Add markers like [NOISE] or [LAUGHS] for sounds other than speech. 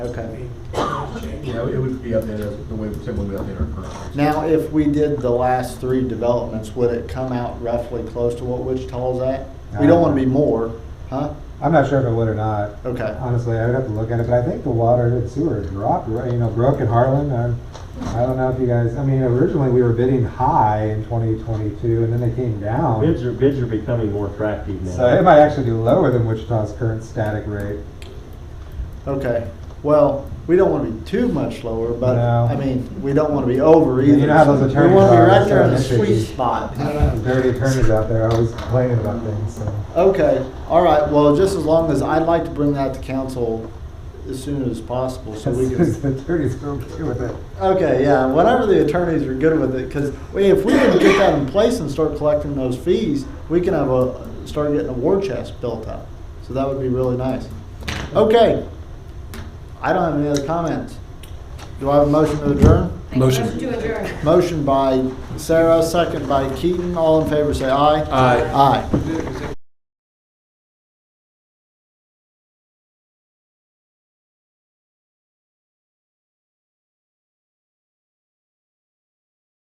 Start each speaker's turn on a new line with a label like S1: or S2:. S1: Okay.
S2: Yeah, it would be updated as- the way, same way we update our current. rates.
S1: Now, if we did the last three developments, would it come out roughly close to what Wichita's at? We don't want to be more, huh?
S3: I'm not sure if it would or not.
S1: Okay.
S3: Honestly, I would have to look at it, but I think the water and sewer dropped, right, you know, broke in Harlan. I I don't know if you guys, I mean, originally we were bidding high in 2022 and then they came
S4: Bids
S3: down.
S4: are, bids are becoming more attractive now.
S3: So it might actually be lower than Wichita's current static rate.
S1: Okay. Well, we don't want to be too much lower, but
S3: No.
S1: I mean, we don't want to be over
S3: You
S1: either.
S3: know how those attorneys
S1: We want to be
S3: are,
S1: right there in the
S3: so they're
S1: sweet
S3: picky.
S1: spot.
S3: Dirty attorneys out there always complaining about things, so.
S1: Okay, all right, well, just as long as, I'd like to bring that to council as soon as possible, so
S3: [LAUGHS]
S1: we can.
S3: The attorneys don't get with it.
S1: Okay, yeah, whenever the attorneys are good with it, because if we can get that in place and start collecting those fees, we can have a, start getting a war chest built up. So that would be really nice. Okay, I don't have any other comments. Do I have a motion to adjourn?
S5: Make a Motion to adjourn.
S1: Motion by Sarah, second by Keaton, all in favor, say aye.
S2: Aye.
S1: Aye.